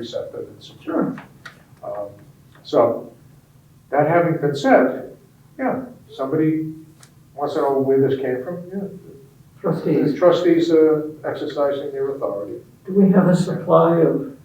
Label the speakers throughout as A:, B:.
A: receptive and secure. Um, So, that having been said, yeah, somebody wants to know where this came from, yeah. The
B: Trustees,
A: trustees are exercising their authority.
B: do we have a supply of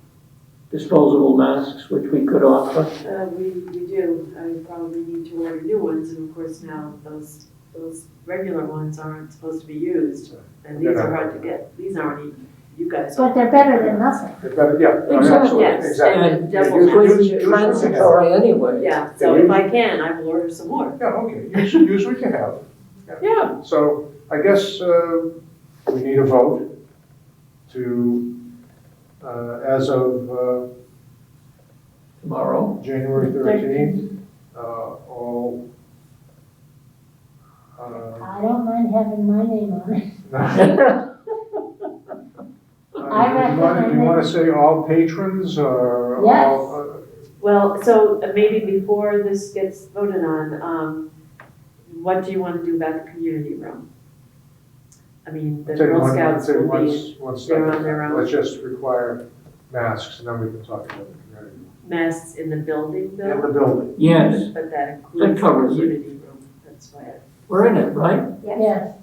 B: disposable masks which we could offer?
C: Uh, we, we do, I probably need to order new ones, and of course now those, those regular ones aren't supposed to be used. And these are hard to get, these aren't even, you guys.
D: But they're better than nothing.
A: They're better- Yeah, no, absolutely,
C: Yes,
A: exactly.
C: and
B: And
C: the
A: you-
C: double
A: you-
C: mask.
A: you-
B: it's transitory anyway.
C: Yeah, so if I can, I will order some more.
A: Yeah, okay, use, use what you have.
C: Yeah.
A: So I guess uh, we need a vote to, uh, as of uh,
B: Tomorrow,
A: January thirteenth, uh, all. uh,
D: I don't mind having my name on it.
A: uh, You wanna- you want to say all patrons or? all,
D: Yes.
A: uh,
C: Well, so uh, maybe before this gets voted on, um, what do you wanna do about the community room? I mean, the
A: Take
C: Girl
A: one-
C: Scouts
A: take
C: will
A: one-
C: be
A: one step
C: they're on
A: at a
C: their
A: time.
C: own.
A: Let's just require masks, and then we can talk about the community.
C: masks in the building
A: In
C: though,
A: the building.
B: yes,
C: but that includes the
B: covers it.
C: community room, that's why. I-
B: we're in it, right?
D: Yes.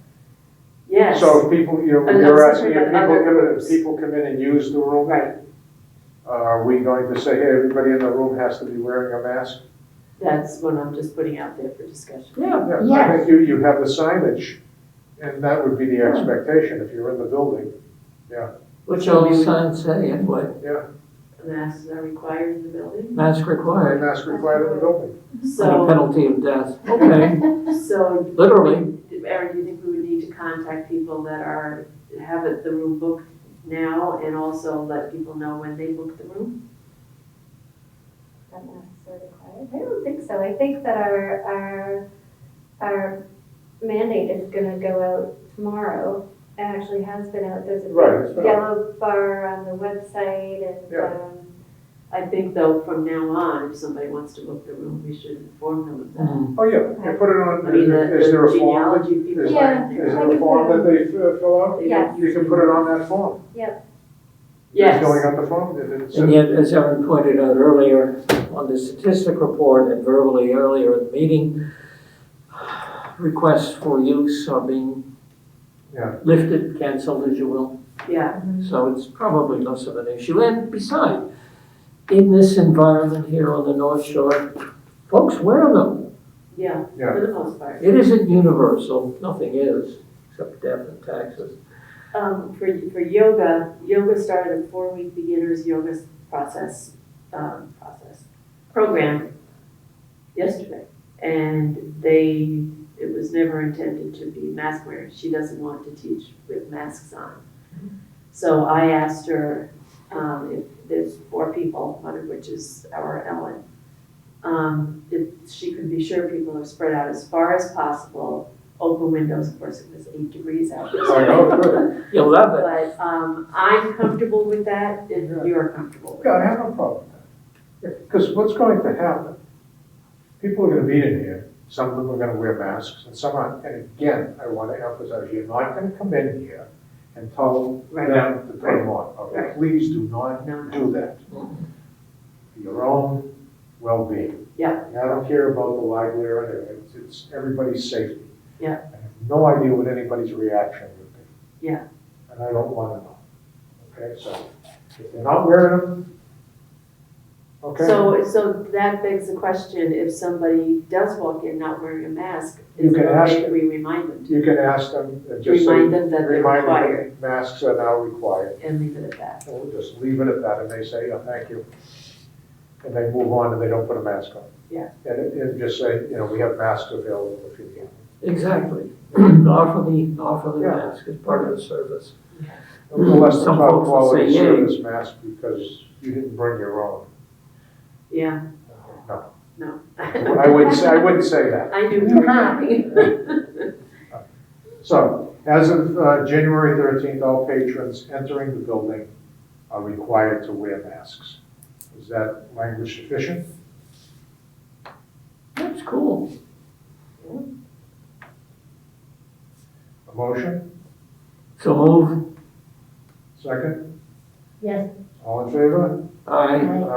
C: Yes,
A: So if people, you know,
C: And
A: you're
C: that's
A: asking, if
C: different
A: people
C: than other
A: come in, if
C: groups.
A: people come in and use the room,
C: right,
A: are we going to say, hey, everybody in the room has to be wearing a mask?
C: that's what I'm just putting out there for discussion.
B: Yeah.
A: Yeah, I think you, you have the signage, and that would be the expectation if you're in the building.
B: Which all the signs say anyway,
C: Masks are required in the building,
B: mask
A: And
B: required,
A: mask required in the building.
C: Mhm.
B: and a
C: so,
B: penalty of death. Okay,
C: so
B: literally,
C: Eric, do you think we would need to contact people that are, have it, the room booked now and also let people know when they book the room?
E: not necessarily required. I don't think so. I think that our, our, our mandate is gonna go out tomorrow. It actually has been out. There's a
A: Right, it's
E: big
A: been out.
E: yellow bar on the website and,
A: Yeah.
E: um,
C: I think though, from now on, if somebody wants to book the room, we should inform them of that.
B: mm,
A: Oh, yeah, you put it on,
C: I mean, the
A: is there
C: the
A: a form?
C: genealogy people
A: is-
C: are in
A: Is
C: there.
A: there a form that they uh, fill out?
C: They don't
A: You can put it on that form. You're Filling
C: Yes,
A: out the form, and it's,
B: and yet, as Erin pointed out earlier, on the statistic report and verbally earlier in the meeting, requests for use are being
A: Yeah.
B: lifted, canceled, as you will.
C: yeah,
B: So it's probably less of an issue. And besides, in this environment here on the North Shore, folks wear them.
C: yeah,
A: Yeah.
C: for the most part.
B: It isn't universal, nothing is, except death and taxes.
C: Um, for, for yoga, yoga started a four-week beginners yoga process, um, process, program yesterday. And they, it was never intended to be mask wearing. She doesn't want to teach with masks on. So I asked her, um, if there's four people, one of which is our Ellen, um, if she could be sure people are spread out as far as possible, open windows, of course, it was eight degrees out.
A: I know, oh, good.
B: You love it.
C: But um, I'm comfortable with that if
A: Yeah.
C: you're comfortable with
A: Yeah,
C: it.
A: I have no problem with that. Because what's going to happen? People are gonna be in here, some of them are gonna wear masks, and some aren't. And again, I wanna emphasize, you're not gonna come in here and tell
C: Right.
A: them to put them on, okay?
C: Right.
A: Please do not
C: No, no.
A: do that. For your own well-being.
C: Yeah.
A: And I don't care about the library or anything, It's- it's everybody's safety.
C: Yeah.
A: I have no idea what anybody's reaction would be.
C: Yeah.
A: And I don't wanna know, okay? So if they're not wearing them, okay?
C: So, so that begs the question, if somebody does walk in not wearing a mask,
A: You
C: is it
A: can ask
C: okay if
A: them.
C: we remind them
A: You can ask them, uh,
C: to?
A: just say,
C: Remind them that they're
A: remind
C: required
A: them, masks are now required.
C: and leave it at that.
A: And we'll just leave it at that, and they say, yeah, thank you. And they move on and they don't put a mask on.
C: Yeah.
A: And, it- and just say, you know, we have masks available if you need.
B: Exactly. Offer the, offer the
A: Yeah.
B: mask as part of the service.
A: Unless it's
B: Some
A: about
B: folks will
A: quality
B: say, "Yay."
A: service mask because you didn't bring your own.
C: Yeah,
A: No,
C: no.
A: I wouldn't, say- I wouldn't say that.
C: I knew you were coming.
A: So, as of uh, January 13th, all patrons entering the building are required to wear masks. Is that language sufficient?
B: That's cool.
A: A motion?
B: So move,
A: Second?
D: Yes.
F: All in favor?
A: Aye.
B: Aye.